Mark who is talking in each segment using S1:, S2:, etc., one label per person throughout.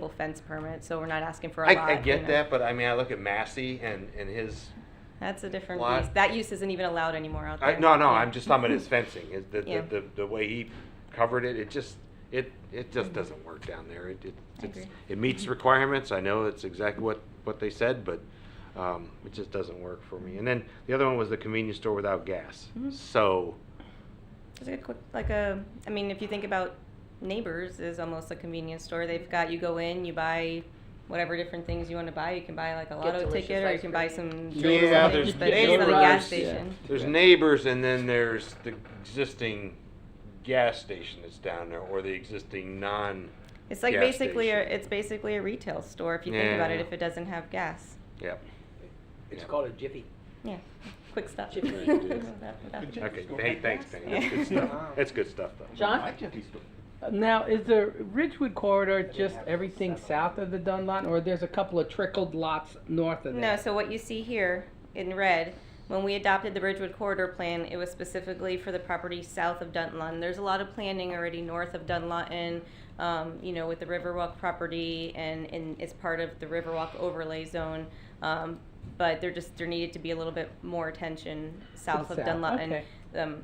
S1: full fence permit, so we're not asking for a lot.
S2: I, I
S1: you
S2: get
S1: know.
S2: that, but I mean, I look at Massey and, and his,
S1: That's a different
S2: Lot.
S1: use. That use isn't even allowed anymore out
S2: I,
S1: there.
S2: no, no,
S1: Yeah.
S2: I'm just talking about his fencing, is the,
S1: Yeah.
S2: the, the, the way he covered it, it just, it, it just doesn't work down there. It, it,
S1: Mm-hmm. I
S2: it's-
S1: agree. Mm-hmm.
S2: it meets requirements, I know it's exactly what, what they said, but, um, it just doesn't work for me. And then the other one was the convenience store without gas,
S1: Mhm.
S2: so,
S1: It's like a quick, like a, I mean, if you think about Neighbors is almost a convenience store. They've got, you go in, you buy whatever different things you want to buy. You can buy like a lotto
S3: delicious
S1: ticket or you
S3: ice
S1: can
S3: cream.
S1: buy some.
S2: Yeah,
S1: chili
S2: there's
S1: sandwiches, but it's not a
S2: Neighbors,
S1: gas
S2: yeah.
S1: station.
S2: there's neighbors and then there's the existing gas station that's down there, or the existing non,
S1: It's like
S2: Gas
S1: basically, a,
S2: station.
S1: it's basically a retail store if you think about it,
S2: Yeah.
S1: if it doesn't have gas.
S2: yeah.
S3: It's
S2: Yeah.
S3: called a jiffy.
S1: Yeah, quick stuff.
S3: Chip
S2: Right, it is.
S1: Without-
S4: Good
S2: Okay,
S4: Jiffy Store
S2: hey,
S4: had
S2: thanks,
S4: gas?
S2: Penny, that's good
S4: Yeah.
S2: stuff, that's good stuff, though.
S3: John?
S4: My Jiffy Store.
S5: Now, is the Ridgewood corridor just everything
S3: Seven.
S5: south of the Dunn lot, or there's a couple of trickled lots north of
S1: No,
S5: that?
S1: so what you see here in red, when we adopted the Bridgewood Corridor Plan, it was specifically for the property south of Dunlun. There's a lot of planning already north of Dunlun, um, you know, with the Riverwalk property and, and it's part of the Riverwalk overlay zone. Um, but there just, there needed to be a little bit more attention south of
S5: south,
S1: Dunlun.
S5: okay.
S1: Um,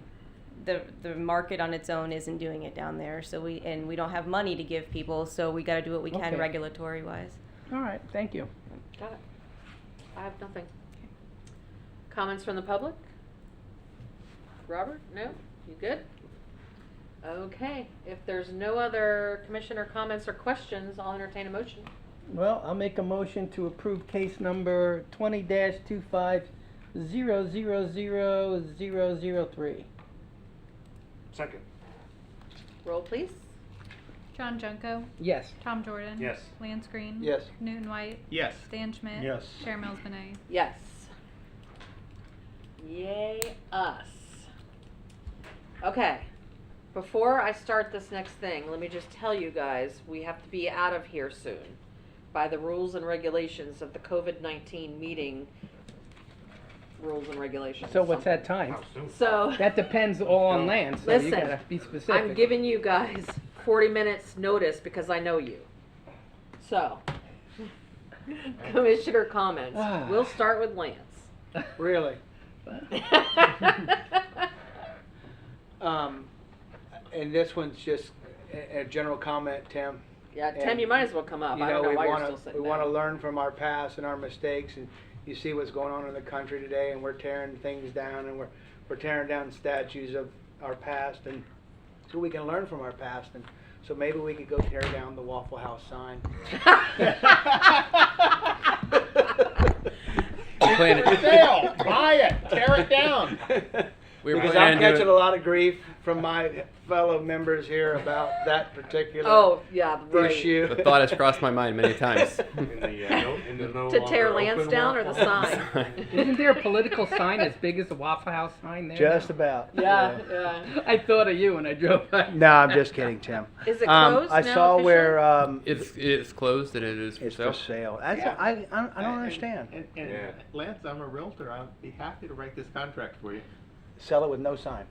S1: the, the market on its own isn't doing it down there, so we, and we don't have money to give people, so we gotta do what we can
S5: Okay.
S1: regulatory wise.
S5: All right, thank you.
S6: Got it. I have nothing. Comments from the public? Robert, no? You good? Okay, if there's no other commissioner comments or questions, I'll entertain a motion.
S5: Well, I'll make a motion to approve case number twenty dash two five zero zero zero zero zero three.
S2: Second.
S6: Roll, please.
S7: John Junko,
S5: Yes.
S7: Tom Jordan.
S2: Yes.
S7: Lance Green.
S3: Yes.
S7: Newton White,
S4: Yes.
S7: Stan Schmidt.
S4: Yes.
S7: Chair Mills Benet.
S6: Yes. Yay, us. Okay, before I start this next thing, let me just tell you guys, we have to be out of here soon by the rules and regulations of the COVID 19 meeting rules and regulations.
S5: So what's that time?
S6: So.
S5: That depends all on land, so you
S6: Listen,
S5: gotta be specific.
S6: I'm giving you guys 40 minutes notice because I know you. So, commissioner comments.
S5: Ah.
S6: We'll start with Lance.
S3: Really? Um, and this one's just a, a general comment, Tim.
S6: yeah, Tim, you might as well come up.
S3: You
S6: Uh, I don't know
S3: we
S6: why
S3: wanna,
S6: you're still sitting
S3: we
S6: there.
S3: want to learn from our past and our mistakes, and you see what's going on in the country today, and we're tearing things down, and we're we're tearing down statues of our past, and so we can learn from our past, and so maybe we could go tear down the Waffle House sign.
S8: plan
S4: For sale, buy it, tear it down.
S8: We were
S3: because
S8: planning
S3: I'm
S8: to do
S3: catching
S8: it-
S3: a lot of grief from my fellow members here about that particular
S6: oh, yeah, right.
S3: issue.
S8: The thought has crossed my mind many times.
S2: In the, uh, no- in the no
S6: To tear
S2: longer
S6: Lance
S2: open
S6: down or the
S2: waffle house.
S6: sign?
S5: Isn't there a political sign as big as the Waffle House sign there?
S3: Just about.
S6: Yeah, yeah.
S5: I thought of you when I drove by.
S3: No, I'm just kidding, Tim.
S6: Is it
S3: Um,
S6: closed
S3: I
S6: now
S3: saw
S6: officially?
S3: where um,
S8: It's it's closed and it is for
S3: it's
S8: sale.
S3: for sale. That's,
S4: Yeah.
S3: I, I, I don't
S4: And-
S3: understand.
S4: And, and
S2: Yeah.
S4: Lance, I'm a realtor. I'd be happy to write this contract for you.
S3: Sell it with no sign.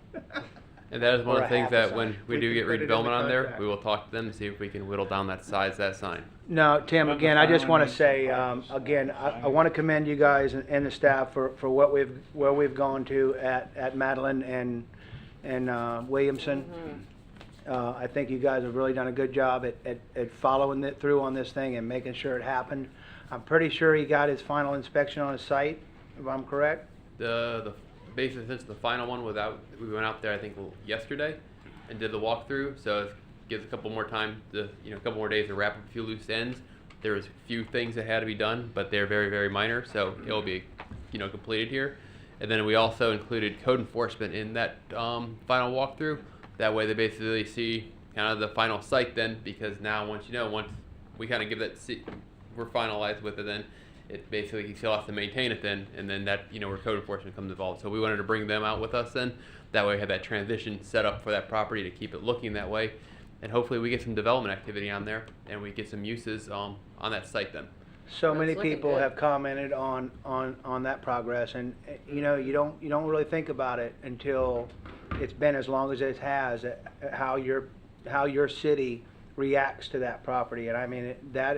S8: And that is one
S3: Or
S8: of the
S3: a
S8: things
S3: half a
S8: that
S3: sign.
S8: when we,
S4: We
S8: do
S4: can
S8: get
S4: put it
S8: Reed
S4: in
S8: Bellman
S4: the
S8: on there,
S4: contract.
S8: we will talk to them to see if we can whittle down that size of that sign.
S3: No, Tim,
S4: Not the
S3: again, I just
S4: sign,
S3: want to
S4: it's the
S3: say,
S4: purpose.
S3: um, again, I, I want to commend you guys and, and the staff for, for what we've, where we've gone to at, at Madeline and, and, uh, Williamson.
S6: Mm-hmm.
S3: Uh, I think you guys have really done a good job at, at, at following it through on this thing and making sure it happened. I'm pretty sure he got his final inspection on his site, if I'm correct.
S8: The the basically since the final one without we went out there I think yesterday and did the walkthrough, so it gives a couple more time to you know a couple more days to wrap up a few loose ends. There was a few things that had to be done, but they're very very minor, so it will be you know completed here. And then we also included code enforcement in that um, final walkthrough. That way they basically see kind of the final site then, because now once you know once we kind of give that see, we're finalized with it then it basically you still have to maintain it then and then that you know where code enforcement comes involved so we wanted to bring them out with us then that way we have that transition set up for that property to keep it looking that way and hopefully we get some development activity on there and we get some uses um, on that site then
S3: So
S6: That's
S3: many
S6: looking
S3: people
S6: good.
S3: have commented on, on, on that progress and, eh, you know, you don't, you don't really think about it until it's been as long as it uh, has, eh, eh, how your, how your city reacts to that property. And I mean, it- that